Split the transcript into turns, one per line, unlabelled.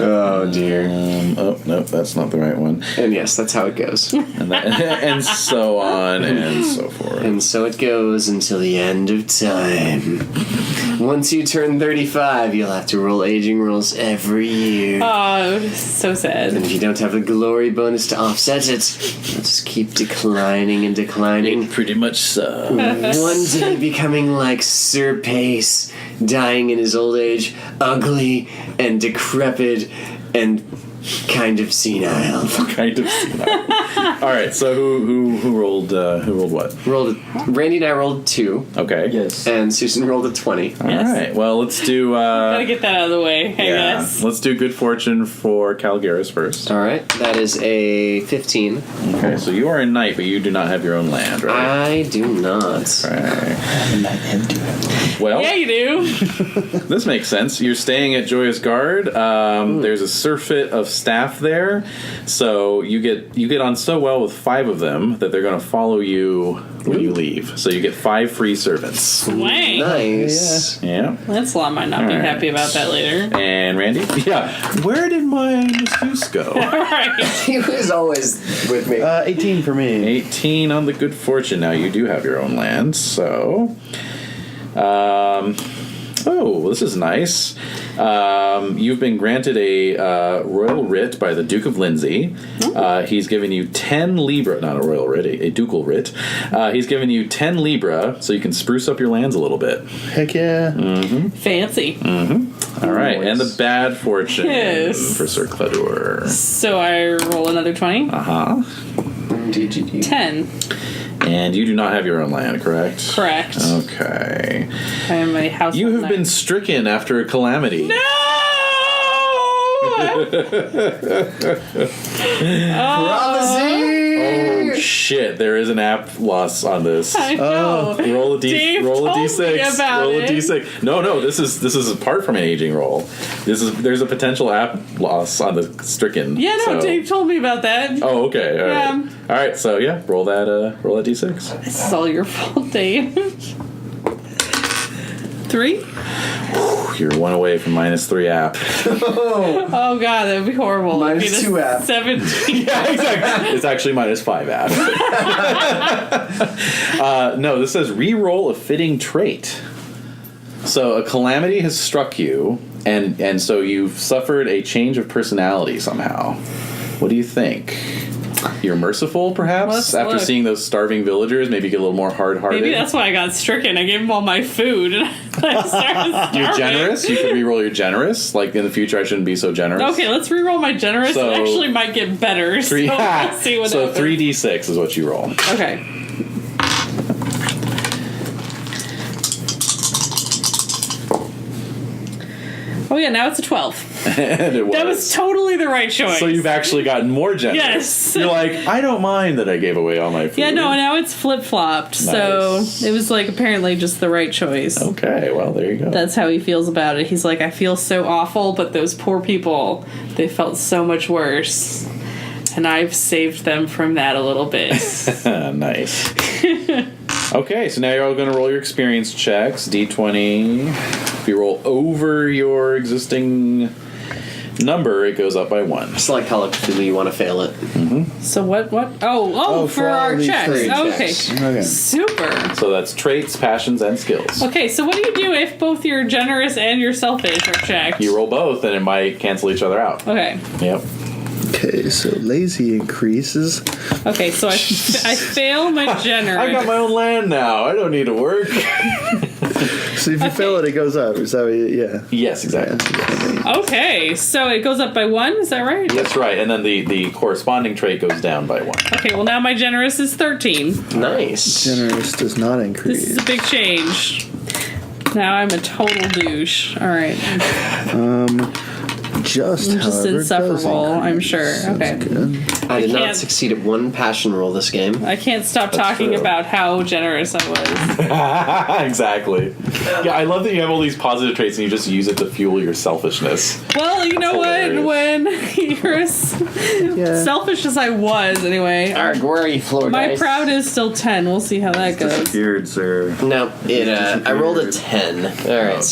oh dear.
Um, oh no, that's not the right one.
And yes, that's how it goes.
And, that, and so on and so forth.
And so it goes until the end of time. Once you turn 35, you'll have to roll aging rolls every year.
Oh, so
And
sad.
if you don't have a glory bonus to offset it, you'll just keep declining and declining.
Pretty much so.
One day becoming like Sir Pace, dying in his old age, ugly and decrepit and kind of senile.
kind of. senile. All right. So who who who rolled uh, who rolled what?
Rolled a, Randy and I rolled two,
Okay.
Yes.
and Susan rolled a 20.
All
Yes.
right. Well, let's do.
Gotta
Uh,
get that out of the way, I
yeah.
guess.
Let's do good fortune for Calgaris first.
All right, that is a 15.
Okay. So you are a knight, but you do not have your own land,
Uh,
right?
I do not.
Right.
And I had to.
Well,
Yeah, you do.
this makes sense. You're staying at Joyous Guard. Um, there's a surfeit of staff there, so you get you get on so well with five of them that they're going to follow you when you leave. So you get five free servants.
Wang.
Nice.
Yeah.
Lancelot might not be
Alright.
happy about that later.
And Randy? Yeah. Where did my masseuse go?
Alright.
He was always with me.
Uh, 18 for me.
18 on the good fortune. Now you do have your own land, so. Um, oh, this is nice. Um, you've been granted a uh, royal writ by the Duke of Lindsay. Uh, he's given you 10 libra, not a royal writ, a, a ducal writ. Uh, he's given you 10 libra so you can spruce up your lands a little bit.
Heck yeah.
Fancy.
All right, and the bad fortune
Yes.
for Sir Cledur.
So I roll another 20.
Uh huh.
Mm, DGD.
10.
And you do not have your own land, correct?
Correct.
Okay.
I am a house.
Oh. You have been stricken after a calamity.
No! oh,
Oh shit! There is an app loss on this. Oh.
I know.
Roll a d.
Dave
roll a
told
d
me
six.
about
Roll a
it.
d six. No, no. This is this is apart from an aging roll. This is there's a potential app loss on the stricken.
yeah, no,
so-
Dave told me about that.
Oh, okay. All right.
Yeah.
All right. So yeah, roll that. Uh, roll that d six.
This is all your fault, Dave. Three?
You're one away from minus three app.
Oh god, that would be horrible.
Minus
It'd be the
two app.
Seventeen.
exactly. It's actually minus five app. uh, no, this says re-roll a fitting trait. So a calamity has struck you, and and so you've suffered a change of personality somehow. What do you think? You're merciful, perhaps.
Let's
After
look.
seeing those starving villagers, maybe get a little more hard-hearted.
Maybe that's why I got stricken. I gave him all my food and I started
you're
starving.
generous. You can re-roll your generous. Like in the future, I shouldn't be so generous.
Okay, let's re-roll my generous.
So-
it actually might get better.
Three.
So let's see what
so
happens.
three d six is what you roll.
Okay. Oh yeah, now it's a twelve.
and it was.
That was totally the right choice.
So you've actually gotten more generous.
Yes.
You're like, I don't mind that I gave away all my food.
yeah, no, now it's flip flopped.
Nice.
So it was like apparently just the right choice.
Okay, well there you go.
That's how he feels about it. He's like, I feel so awful, but those poor people, they felt so much worse. And I've saved them from that a little bit.
Ah, nice. okay, so now you're all going to roll your experience checks. D20. If you roll over your existing number, it goes up by one.
It's like Call of Cthulhu, you want to fail it.
so what what oh oh,
Oh,
for,
for all
our
these Oh,
checks.
three
Okay.
checks.
Okay.
Super.
So that's traits, passions, and skills.
Okay, so what do you do if both your generous and your selfish are checked?
You roll both, and it might cancel each other out.
okay.
Yep.
Okay, so lazy increases.
Okay, so I, I fail my generous.
I got my own land now. I don't need to work.
So if you fail it, it goes up. Is that what you, yeah.
yes, exactly.
okay, so it goes up by one, is that right?
That's right. And then the, the corresponding trait goes down by one.
Okay, well now my generous is thirteen.
Nice.
Generous does not
This is
increase.
a big change. Now I'm a total douche. All right,
Just,
I'm just
however, does
insufferable. I'm
increase.
sure.
Sounds
Okay,
good.
I did not
can't-
succeed at one passion roll this game.
I can't stop talking
true.
about how generous I was.
exactly. Yeah, I love that you have all these positive traits and you just use it to fuel your selfishness.
Well, you know
That's
what? When you're as
Yeah.
selfish as I was, anyway,
Arg, where are you, Florida?
my proud is still ten. We'll see how that goes.
Beard, sir.
No, it. Uh, I rolled a ten. All right,